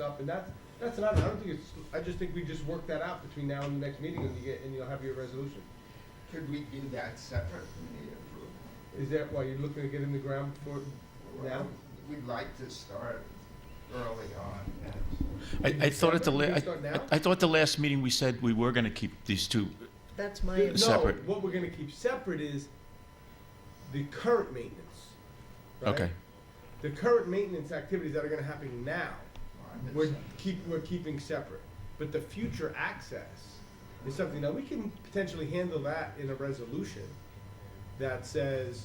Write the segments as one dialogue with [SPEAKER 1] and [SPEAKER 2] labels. [SPEAKER 1] stuff, and that's, that's not, I don't think it's, I just think we just work that out between now and the next meeting, and you get, and you'll have your resolution.
[SPEAKER 2] Could we do that separate from the approval?
[SPEAKER 1] Is that why you're looking to get in the ground for now?
[SPEAKER 2] We'd like to start early on, yes.
[SPEAKER 3] I, I thought at the, la-
[SPEAKER 1] Can we
[SPEAKER 3] I,
[SPEAKER 1] start now?
[SPEAKER 3] I thought the last meeting we said we were gonna keep these two,
[SPEAKER 4] That's my,
[SPEAKER 1] No,
[SPEAKER 3] Separate.
[SPEAKER 1] what we're gonna keep separate is the current maintenance, right?
[SPEAKER 3] okay.
[SPEAKER 1] The current maintenance activities that are gonna happen now,
[SPEAKER 2] on
[SPEAKER 1] we're
[SPEAKER 2] this-
[SPEAKER 1] keep, we're keeping separate. But the future access is something that we can potentially handle that in a resolution that says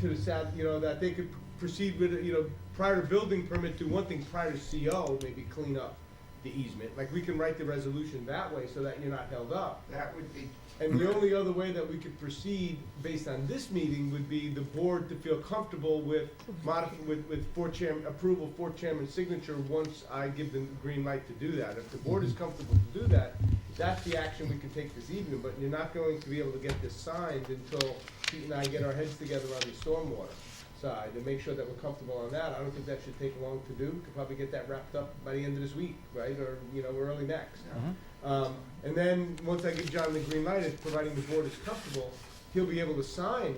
[SPEAKER 1] to the south, you know, that they could proceed with, you know, prior to building permit, do one thing, prior to CO, maybe clean up the easement. Like, we can write the resolution that way so that you're not held up.
[SPEAKER 2] That would be,
[SPEAKER 1] And the only other way that we could proceed based on this meeting would be the board to feel comfortable with modif, with, with four chairman, approval, four chairman signature, once I give them the green light to do that. If the board is comfortable to do that, that's the action we can take this evening, but you're not going to be able to get this signed until Pete and I get our heads together on the stormwater side and make sure that we're comfortable on that. I don't think that should take long to do. Could probably get that wrapped up by the end of this week, right, or, you know, early next. Um, and then, once I give John the green light, if providing the board is comfortable, he'll be able to sign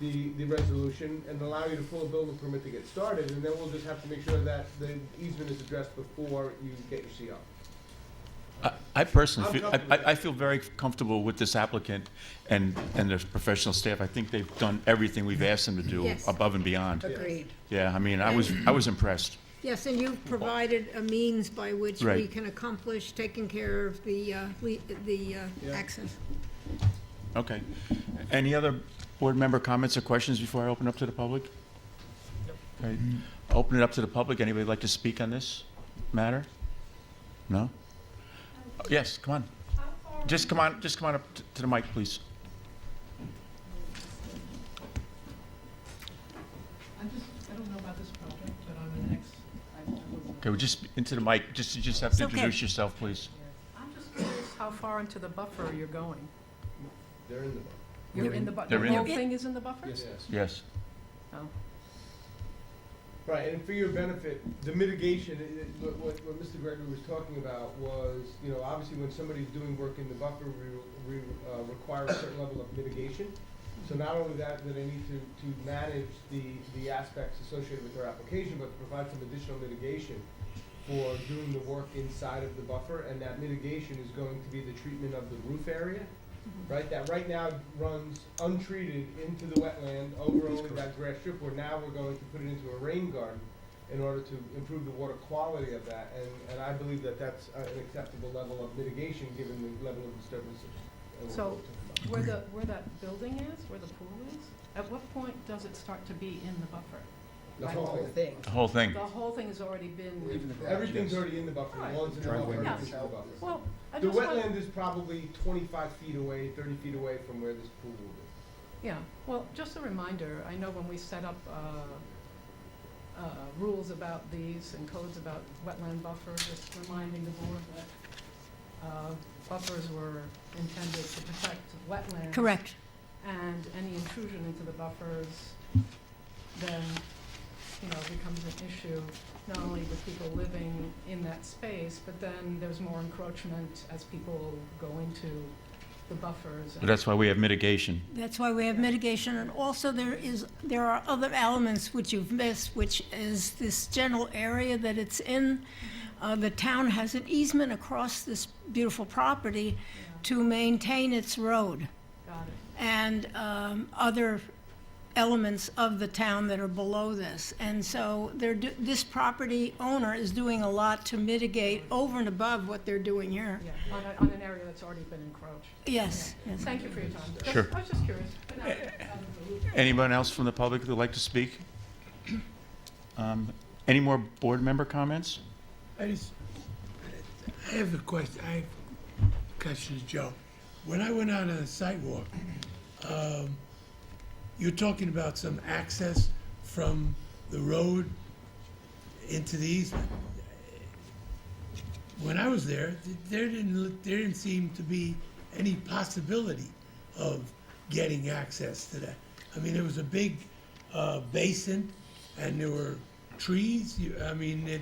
[SPEAKER 1] the, the resolution and allow you to pull a building permit to get started, and then we'll just have to make sure that the easement is addressed before you get your CO.
[SPEAKER 3] I- I personally,
[SPEAKER 1] I'm
[SPEAKER 3] feel- I,
[SPEAKER 1] comfortable with
[SPEAKER 3] I I feel very comfortable with this applicant and, and their professional staff. I think they've done everything we've asked them to do
[SPEAKER 4] Yes.
[SPEAKER 3] above and beyond.
[SPEAKER 4] agreed.
[SPEAKER 3] Yeah, I mean, I was, I was impressed.
[SPEAKER 4] Yes, and you've provided a means by which we
[SPEAKER 3] Right.
[SPEAKER 4] can accomplish taking care of the, uh, le- the uh,
[SPEAKER 1] Yeah.
[SPEAKER 4] access.
[SPEAKER 3] Okay. Any other board member comments or questions before I open up to the public? Okay. Open it up to the public. Anybody like to speak on this matter? No? Yes, come on. Just come on, just come on up t- to the mic, please.
[SPEAKER 5] I'm just, I don't know about this project, but I'm an ex, I I wasn't.
[SPEAKER 3] Okay, well, just into the mic, just, you just have to
[SPEAKER 5] It's okay.
[SPEAKER 3] introduce yourself, please.
[SPEAKER 5] I'm just curious how far into the buffer you're going.
[SPEAKER 1] They're in the.
[SPEAKER 5] You're in the bu,
[SPEAKER 3] They're
[SPEAKER 5] the
[SPEAKER 3] in
[SPEAKER 5] whole
[SPEAKER 3] the-
[SPEAKER 5] thing is in the buffer?
[SPEAKER 3] Yes.
[SPEAKER 5] Oh.
[SPEAKER 1] Right, and for your benefit, the mitigation, i- i- what, what, what Mr. Gregory was talking about was, you know, obviously when somebody's doing work in the buffer, we, we, uh, require a certain level of mitigation. So not only that, that they need to, to manage the, the aspects associated with their application, but to provide some additional mitigation for doing the work inside of the buffer, and that mitigation is going to be the treatment of the roof area,
[SPEAKER 5] Mm-hmm.
[SPEAKER 1] right? That right now runs untreated into the wetland over only that grass strip, where now we're going to put it into a rain garden in order to improve the water quality of that, and, and I believe that that's uh, an acceptable level of mitigation, given the level of disturbances. that we're
[SPEAKER 5] So-
[SPEAKER 1] talking about.
[SPEAKER 5] Where the, where that building is, where the pool is, at what point does it start to be in the buffer?
[SPEAKER 1] The
[SPEAKER 5] Like,
[SPEAKER 1] whole thing.
[SPEAKER 3] The whole thing.
[SPEAKER 5] The whole thing has already been,
[SPEAKER 1] Everything's already in the buffer,
[SPEAKER 5] Right.
[SPEAKER 1] lawns in the
[SPEAKER 6] Driveway.
[SPEAKER 1] buffer,
[SPEAKER 5] Yeah.
[SPEAKER 1] everything's in the buffer.
[SPEAKER 5] well, I
[SPEAKER 1] The
[SPEAKER 5] just want,
[SPEAKER 1] wetland is probably twenty-five feet away, thirty feet away from where this pool will
[SPEAKER 5] yeah, well, just a reminder, I know when we set up, uh, uh, rules about these and codes about wetland buffer, just reminding the board that, uh, buffers were intended to protect wetlands.
[SPEAKER 4] Correct.
[SPEAKER 5] and any intrusion into the buffers then, you know, becomes an issue, not only with people living in that space, but then there's more encroachment as people go into the buffers.
[SPEAKER 3] But That's why we have mitigation.
[SPEAKER 4] That's why we have mitigation, and also there is, there are other elements which you've missed, which is this general area that it's in. Uh, The town has an easement across this beautiful property
[SPEAKER 5] Yeah,
[SPEAKER 4] to maintain its road.
[SPEAKER 5] Got it.
[SPEAKER 4] and um, other elements of the town that are below this. And so they're, do- this property owner is doing a lot to mitigate over and above what they're doing here.
[SPEAKER 5] Yeah, on, a- on an area that's already been encroached.
[SPEAKER 4] Yes, yes.
[SPEAKER 5] Thank you for your time. Just-
[SPEAKER 3] Sure.
[SPEAKER 5] I was just curious. Good night. Um,
[SPEAKER 3] Anyone else from the public who'd like to speak? Um, Any more board member comments?
[SPEAKER 6] I just, I have a question, I have questions, Joe. When I went out on a sidewalk, um, you're talking about some access from the road into the easement. When I was there, th- there didn't, look- there didn't seem to be any possibility of getting access to that. I mean, there was a big, uh, basin and there were trees, you, I mean, it,